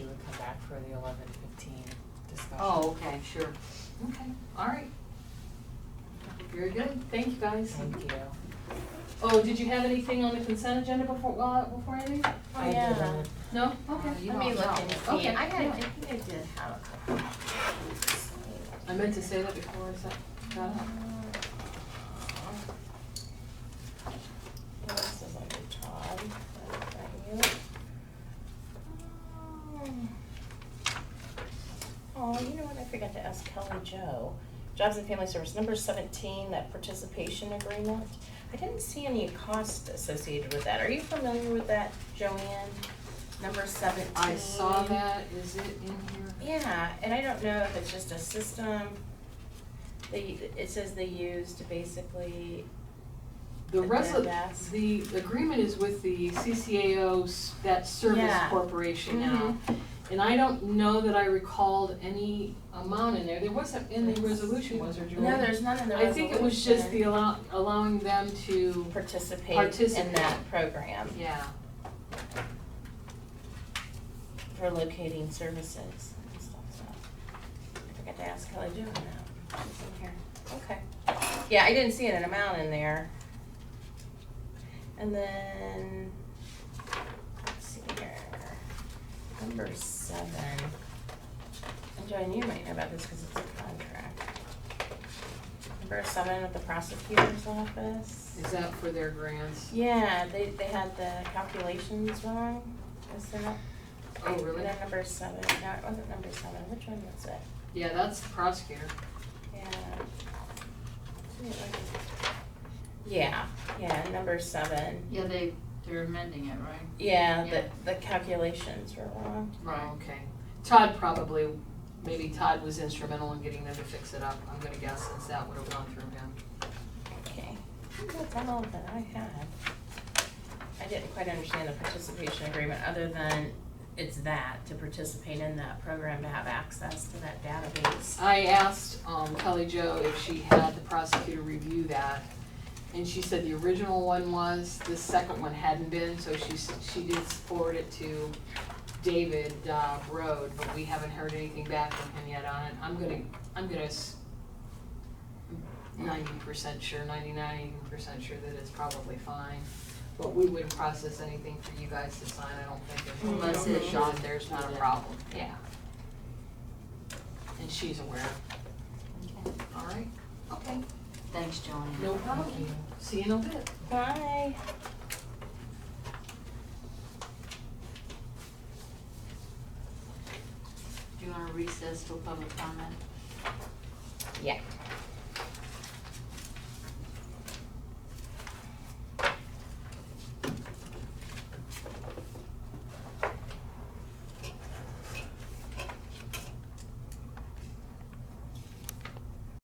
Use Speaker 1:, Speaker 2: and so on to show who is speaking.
Speaker 1: for the eleven fifteen discussion.
Speaker 2: Oh, okay, sure. Okay, all right. Very good, thank you guys.
Speaker 1: Thank you.
Speaker 2: Oh, did you have anything on the consent agenda before, uh, before anything?
Speaker 1: I
Speaker 3: yeah.
Speaker 1: didn't-
Speaker 2: No?
Speaker 3: Uh,
Speaker 2: Okay.
Speaker 3: Let me look and see,
Speaker 2: Okay.
Speaker 3: I had, I think I did have a couple.
Speaker 2: I meant to say that before I said, got up.
Speaker 3: This is under Todd, is that you? Oh, you know what, I forgot to ask Kelly Joe, Jobs and Family Service, number seventeen, that participation agreement. I didn't see any cost associated with that, are you familiar with that, Joanne? Number seventeen?
Speaker 2: I saw that, is it in here?
Speaker 3: Yeah, and I don't know if it's just a system, they, it says they use to basically,
Speaker 2: The
Speaker 3: Did
Speaker 2: rest of,
Speaker 3: Deb ask?
Speaker 2: the agreement is with the CCAO, s- that service
Speaker 3: Yeah. Mm-hmm.
Speaker 2: corporation now. And I don't know that I recalled any amount in there, there wasn't in the resolution, was there, Julie?
Speaker 3: no, there's none in the
Speaker 2: I think it was just the
Speaker 3: resolution.
Speaker 2: allow, allowing them to,
Speaker 3: Participate in
Speaker 2: Participate.
Speaker 3: that program
Speaker 2: yeah,
Speaker 3: for locating services and stuff, so. I forgot to ask Kelly Joe on that, It's in here, okay. Yeah, I didn't see an amount in there. And then, let's see here, number seven. And Joanne, you might know about this because it's a contract. Number seven at the prosecutor's office.
Speaker 2: is that for their grants?
Speaker 3: Yeah, they, they had the calculations wrong, is there not?
Speaker 2: Oh, really?
Speaker 3: Then number seven, no, it wasn't number seven, which one was it?
Speaker 2: Yeah, that's the prosecutor. Oh,
Speaker 3: Yeah. Yeah, yeah, number seven,
Speaker 4: Yeah, they, they're amending it, right?
Speaker 3: yeah,
Speaker 4: Yeah.
Speaker 3: the, the calculations were wrong,
Speaker 2: Right. Okay. Todd probably, maybe Todd was instrumental in getting them to fix it up, I'm gonna guess, since that would have gone through him.
Speaker 3: okay. I think That's all that I had. I didn't quite understand the participation agreement, other than it's that, to participate in that program, to have access to that database.
Speaker 2: I asked um, Kelly Jo if she had the prosecutor review that, and she said the original one was, the second one hadn't been, so she, s- she did forward it to David uh, Road, but we haven't heard anything back from him yet on it. I'm gonna, I'm gonna s- ninety percent sure, ninety-nine percent sure that it's probably fine. But we wouldn't process anything for you guys to sign, I don't think, unless
Speaker 4: Mhm.
Speaker 2: it's Sean, there's not a problem, yeah. And she's aware.
Speaker 4: Okay.
Speaker 2: All right. Okay.
Speaker 4: Thanks, Joanne.
Speaker 2: No problem. See you in a bit.
Speaker 3: Bye.
Speaker 4: Do you wanna recess for public comment?
Speaker 3: Yeah.